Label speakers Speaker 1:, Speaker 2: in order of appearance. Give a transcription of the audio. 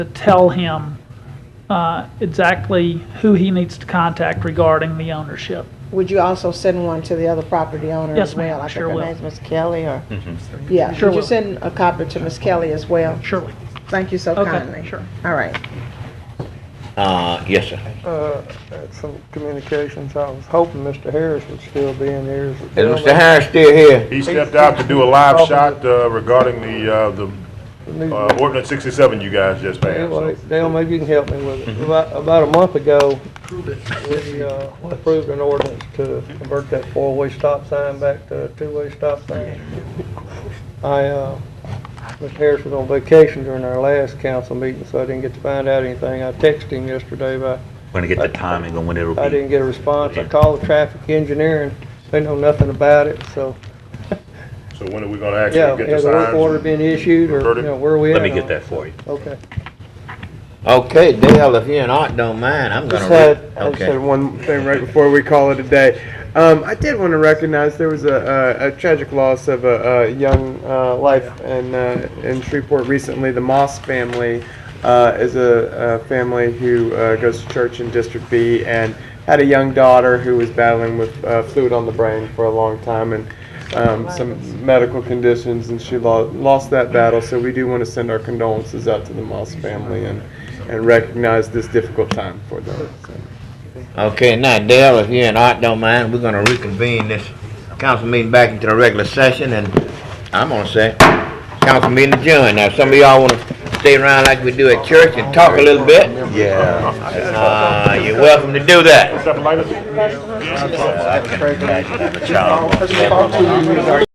Speaker 1: to tell him uh, exactly who he needs to contact regarding the ownership.
Speaker 2: Would you also send one to the other property owner
Speaker 1: Yes,
Speaker 2: as well?
Speaker 1: ma'am, sure will.
Speaker 2: I think her name's Miss Kelly or,
Speaker 3: Mhm.
Speaker 2: yeah,
Speaker 1: Sure
Speaker 2: would you
Speaker 1: will.
Speaker 2: send a copy to Miss Kelly as well?
Speaker 1: Surely.
Speaker 2: Thank you so
Speaker 1: Okay,
Speaker 2: kindly.
Speaker 1: sure.
Speaker 2: All right.
Speaker 3: Uh, yes, sir.
Speaker 4: Uh, at some communications, I was hoping Mr. Harris would still be in here.
Speaker 3: Is Mr. Harris still here?
Speaker 5: He stepped out to do a live shot uh, regarding the, uh, the uh, ordinance 67 you guys just passed.
Speaker 4: Anyway,
Speaker 5: so.
Speaker 4: Dale, maybe you can help me with it. About, about a month ago, we uh, approved an ordinance to convert that four-way stop sign back to a two-way stop sign. I, uh, Mr. Harris was on vacation during our last council meeting, so I didn't get to find out anything. I texted him yesterday, but
Speaker 6: Going to get the timing on when it'll
Speaker 4: I didn't
Speaker 6: be.
Speaker 4: get a response. I called the traffic engineer and they know nothing about it, so.
Speaker 5: So when are we gonna
Speaker 4: Yeah,
Speaker 5: actually get
Speaker 4: yeah,
Speaker 5: the
Speaker 4: the work
Speaker 5: signs?
Speaker 4: order been issued or, you
Speaker 5: reverted?
Speaker 4: know, where we at?
Speaker 6: Let me
Speaker 4: on
Speaker 6: get
Speaker 4: it?
Speaker 6: that for you.
Speaker 4: Okay.
Speaker 3: Okay, Dale, if you and Art don't mind, I'm gonna.
Speaker 7: Just
Speaker 3: read-
Speaker 7: had, I just
Speaker 3: Okay.
Speaker 7: had one thing right before we call it a day. Um, I did want to recognize there was a, a, a tragic loss of a, a young uh, life in, uh, in Shreveport recently. The Moss family uh, is a, a family who uh, goes to church in District B and had a young daughter who was battling with uh, fluid on the brain for a long time and um, some medical conditions, and she lo- lost that battle. So we do want to send our condolences out to the Moss family and, and recognize this difficult time for them. So.
Speaker 3: Okay, now Dale, if you and Art don't mind, we're gonna reconvene this council meeting back into the regular session and I'm gonna say, council meeting adjourned. Now, some of y'all wanna stay around like we do at church and talk a little bit? Yeah. Uh, you're welcome to do that. Uh,
Speaker 5: Something like that?
Speaker 3: I can- I can have a child.